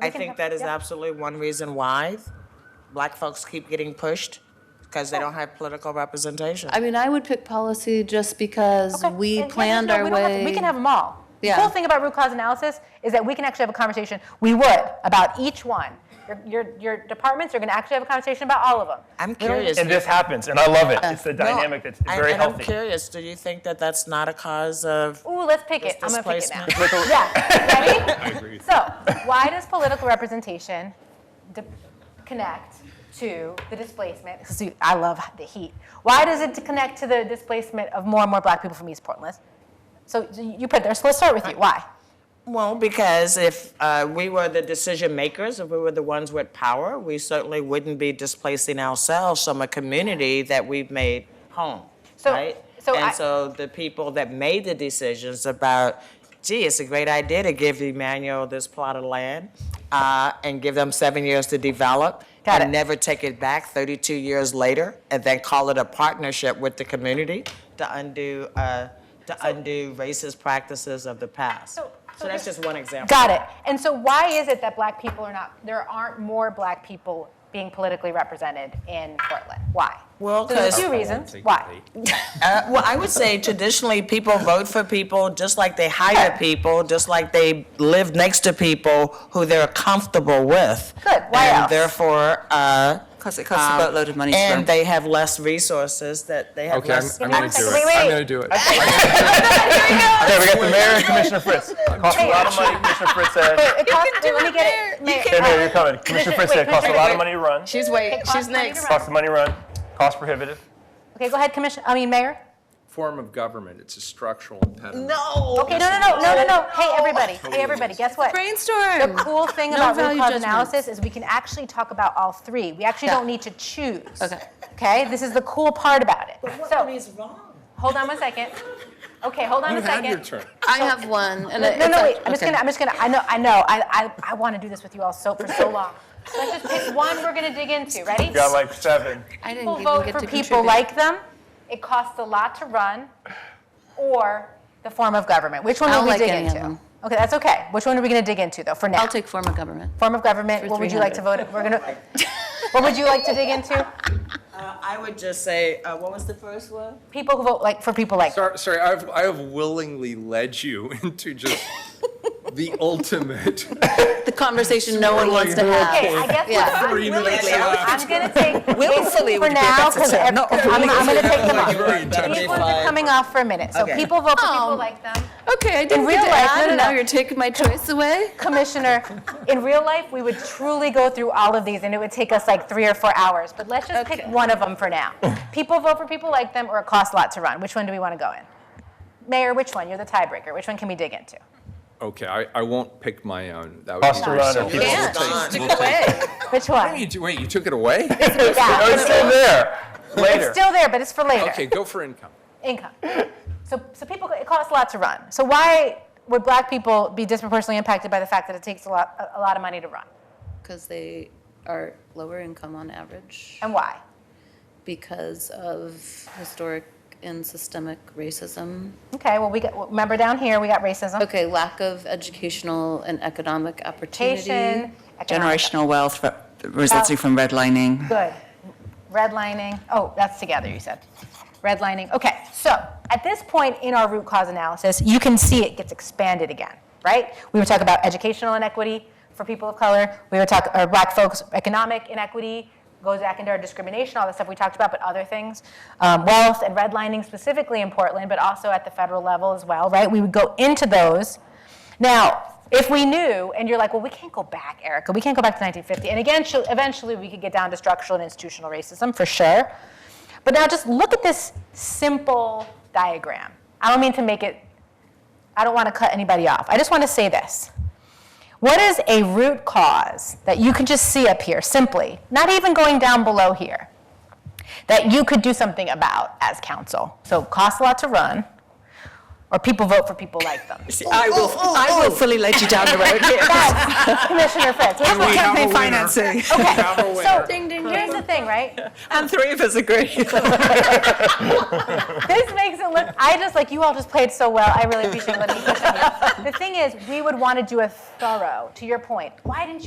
I think that is absolutely one reason why black folks keep getting pushed because they don't have political representation. I mean, I would pick policy just because Okay. we And- and planned no, our we don't have to- way. We can have them all. The Yeah. cool thing about root cause analysis is that we can actually have a conversation, we would, about each one. Your, your, your departments are gonna actually have a conversation about all of them. I'm curious. And this happens, and I love it. It's the No, dynamic that's I- very and I'm healthy. curious, do you think that that's not a cause of, Ooh, let's pick it, I'm This gonna pick it now. displacement. Yeah, ready? I agree. So, why does political representation de- connect to the displacement? This is- I love the heat. Why does it connect to the displacement of more and more black people from East Portland? So you you put there, so let's start with you, why? well, because if uh, we were the decision makers, if we were the ones with power, we certainly wouldn't be displacing ourselves from a community that we've made home, So- right? so And I- so the people that made the decisions about, gee, it's a great idea to give Emmanuel this plot of land uh, and give them seven years to develop Got and it. never take it back 32 years later and then call it a partnership with the community to undo, uh, to undo racist practices of the past. So- So that's just one example. Got it. And so why is it that black people are not, there aren't more black people being politically represented in Portland? Why? Well, So there's a 'cause- few reasons. Why? Uh, well, I would say traditionally people vote for people just like they hire people, just like they live next to people who they're comfortable with. Good. Why and else? therefore, uh, Because it costs a boatload of money to and run. they have less resources that they have Okay, I'm, less. I'm me gonna one do second. it. Wait, wait. I'm gonna do it. Okay, we got the mayor and Commissioner Fritz. Costs a lot of money, Commissioner Fritz said. It costs, wait, let me get it. Mayor- Hey, Mayor, you're coming. Commissioner Fritz said, wait, costs a lot Commissioner- of money to run. She's It wait, costs she's money to next. run. Costs the money to run, cost prohibitive. Okay, go ahead, Commissioner, I mean, Mayor. Form of government, it's a structural impediment. No. Okay, no, no, no, no, no, no. Hey, everybody, hey, everybody, guess what? The Brainstorm. cool thing about root value cause judgment. analysis is we can actually talk about all three. We actually Yeah. don't need to choose. Okay. Okay, this is the cool part about it. What So, is wrong? hold on one second. Okay, hold on You a had second. your turn. I have one, and it- No, it's no, a- wait. I'm just okay. gonna. I'm just gonna. I know. I know. I I, I want to do this with you all so for so long. So let's just pick one we're gonna dig into. Ready? We Got like seven. I didn't People even vote get for to people contribute. like them. It costs a lot to run, or the form of government. Which one I will don't we like dig any of into? them. Okay, that's okay. Which one are we gonna dig into though? For now. I'll take form of government. form of government. for What would you like to vote? We're gonna. what would you like to dig into? Uh, I would just say, uh, what was the first one? People who vote like for people like. Sorry, sorry, I've, I have willingly led you into just the ultimate. The conversation no one wants to Swirling. have. Okay, I guess Yeah. what I'm Three willing minutes to- I'm left. gonna take Willfully for would be a now better because term. I'm, No, I'm gonna take them off. Very intense. These ones are coming off for a minute. So Okay. people vote for people Um, like them. Okay, I didn't real get to life, no, add, no, and no. now you're taking my choice away? Commissioner, in real life, we would truly go through all of these and it would take us like three or four hours. But let's just pick Okay. one of them for now. People vote for people like them or it costs a lot to run. Which one do we want to go in? Mayor, which one? You're the tiebreaker. Which one can we dig into? Okay, I, I won't pick my own. That would Cost be to run or selfish. people. We'll take- Stick we'll take- away. Which What are one? you do- Wait, you took it away? Yeah. No, it's still there. Later. Still there, but it's for later. Okay, go for income. Income. So, so people, it costs a lot to run. So why would black people be disproportionately impacted by the fact that it takes a lot, a- a lot of money to run? Because they are lower income on average And why? because of historic and systemic racism. Okay, well, we got, remember down here, we got racism. Okay, lack of educational and economic opportunity. Education, economic- Generational wealth fro- resulting from redlining. Good. Redlining, oh, that's together, you said. Redlining, okay. So at this point in our root cause analysis, you can see it gets expanded again, right? We were talking about educational inequity for people of color. We were talking, or black folks, economic inequity goes back into our discrimination, all the stuff we talked about, but other things. Um, wealth and redlining specifically in Portland, but also at the federal level as well, right? We would go into those. Now, if we knew, and you're like, well, we can't go back, Erica, we can't go back to 1950. And again, she'll- eventually we could get down to structural and institutional racism for sure. But now just look at this simple diagram. I don't mean to make it, I don't want to cut anybody off. I just want to say this. What is a root cause that you can just see up here simply, not even going down below here, that you could do something about as council? So, costs a lot to run, or people vote for people like them. I will, I will fully let you down the road here. Yes, Commissioner Fritz. Here's For what- have a campaign winner. financing. Have a So, winner. here's the thing, right? And three of us agree. This makes it look, I just, like, you all just played so well. I really appreciate letting me push on you. The thing is, we would want to do a thorough, to your point. Why didn't you